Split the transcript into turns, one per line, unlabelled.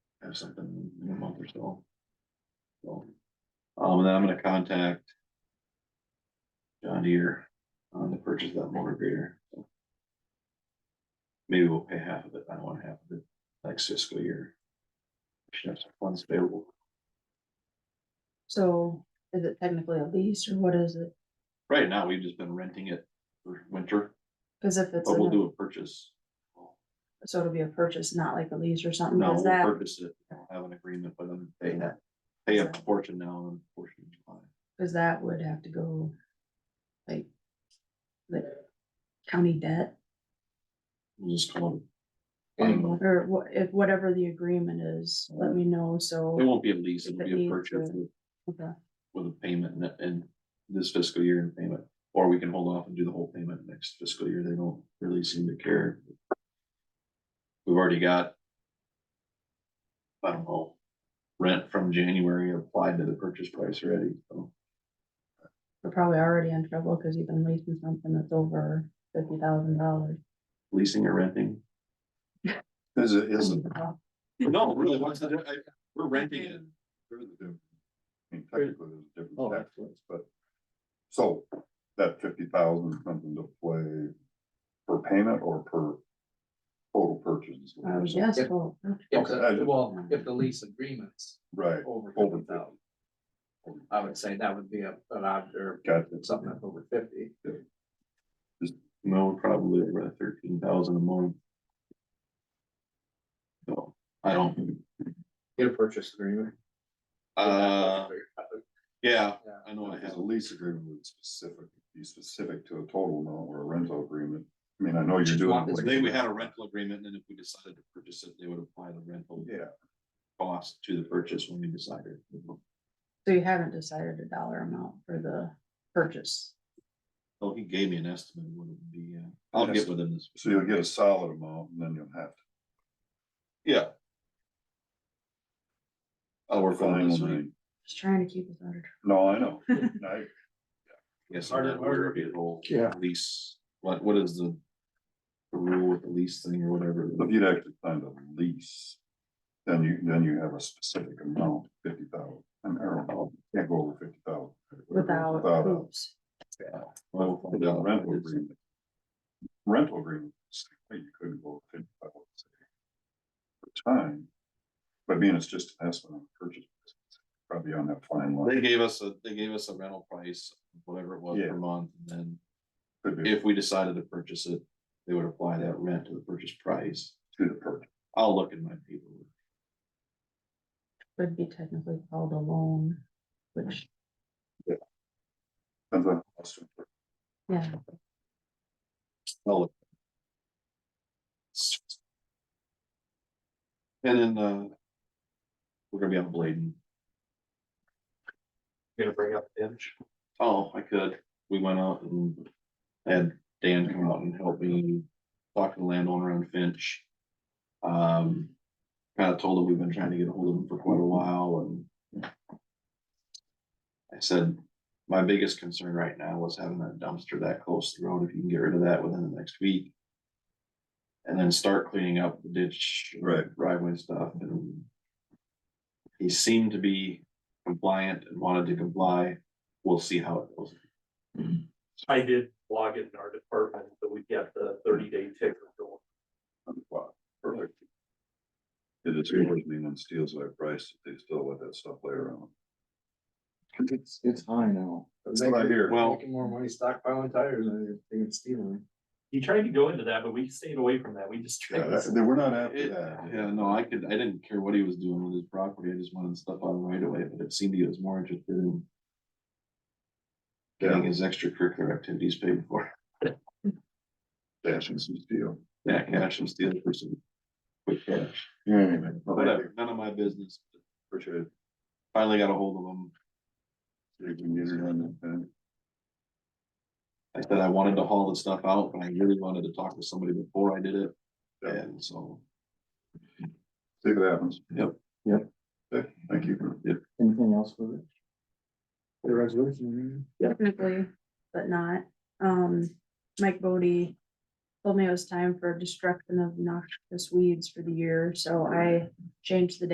or something in a month or so. So, um, and then I'm gonna contact. John Deere on the purchase of that motor grader. so. Maybe we'll pay half of it, I don't want half of it next fiscal year. We Should have some funds available,
So is it technically a lease or what is it?
right now, we've just been renting it for winter,
Cause if it's,
but we'll
in
do a purchase.
a- so it'll be a purchase, not like a lease or something,
No, we'll
is that,
purchase it, we'll have an agreement with them, pay that, pay a portion now and a portion in July.
cause that would have to go. Like. Like county debt
We'll just call it. I don't know.
or what, if whatever the agreement is, let me know,
It
so.
won't be a lease,
If
it'll
it
be a
needs
purchase
to-
with,
Okay,
with a payment in, in this fiscal year and payment. Or we can hold off and do the whole payment next fiscal year, they don't really seem to care. We've already got. I don't know, rent from January applied to the purchase price already, so.
We're probably already in trouble, cause you've been leasing something that's over fifty thousand dollars.
Leasing or renting?
Is it, is
Hmm.
it?
No, really, what's the, di- I- we're renting it.
there is a difference. I mean, technically, there's a different tax rates, but. So that fifty thousand comes into play per payment or per total purchase?
Oh, yes, well,
If the,
Okay.
well, if
Mm-hmm.
the lease agreement's
Right,
over
Over
fifty thousand. I would say that would be a, an odd, or
got it.
Uh, something that's over fifty.
No, probably over thirteen thousand a month. So, I don't,
Get a purchase agreement.
uh, yeah,
Yeah.
I know I
Because
have.
a lease agreement would specific, be specific to a total amount or a rental agreement. I mean, I know you're
Just
doing.
want
it
this-
like-
They would have a rental agreement, and if we decided to purchase it, they would apply the rental
Yeah,
cost to the purchase when we decided.
so you haven't decided a dollar amount for the purchase.
Oh, he gave me an estimate, of what it would be, uh, I'll get with him this.
so you'll get a solid amount and then you'll have. to
Yeah. I'll work on it this week.
finally-
Just trying to keep us out of trouble.
No, I know. I,
Yes, I'm
Harder
not
and
aware of the whole
Yeah.
lease, what, what is the the rule with the lease thing or whatever?
If you'd actually signed a lease, then you, then you have a specific amount, fifty thousand, an arrow, can't go over fifty thousand.
Without
Without
hoops.
Well,
a
find out.
rental agreement. Rental agreement, same way, you couldn't go over fifty thousand. For time, but being it's just an estimate on the purchase, price, it's probably on that fine line.
They gave us a, they gave us a rental price, whatever it was
Yeah.
per month, and then
Could be
if we decided to purchase it, they would apply that rent to the purchase price.
to the purchase,
I'll look in my paperwork.
Would be technically called a loan, which,
depends on. how much it-
yeah,
I'll look. And then, uh, we're gonna be on Bladen.
Gonna bring up Finch.
Oh, I could. We went out and had Dan come out and help me talk to the landowner on Finch. Um, kind of told him we've been trying to get a hold of him for quite a while and I said, my biggest concern right now was having that dumpster that close to the road. If you can get rid of that within the next week. And then start cleaning up the ditch.
Right.
Driveway stuff and he seemed to be compliant and wanted to comply. We'll see how it goes.
I did log it in our department, so we got the thirty day ticker going.
on the plot. Perfect. It is usually when steals that price, they still let that stuff lay around.
It's, it's high now.
That's what I hear.
Well-
Making more money stockpiling tires than they can stealing.
He tried to go into that, but we stayed away from that. We just
Yeah,
tried.
that- they we're not after
It-
that.
Yeah, no, I could, I didn't care what he was doing with his property, I just wanted stuff out right away, but it seemed he was more interested in. Getting his extracurricular activities paid for,
Dashing some steel.
yeah, cash and steal for some quick cash,
Yeah, anyway.
whatever, none of my business.
Appreciate it.
Finally got a hold of him,
See if we can get it on that, uh,
I said I wanted to haul the stuff out, but I really wanted to talk to somebody before I did it,
Yeah.
and so.
See if it happens.
Yep.
Yep.
Okay, Thank you.
Anything else for this? The resolution.
technically, but not. Um, Mike Bodie told me it was time for destruction of noxious weeds for the year, so I changed the date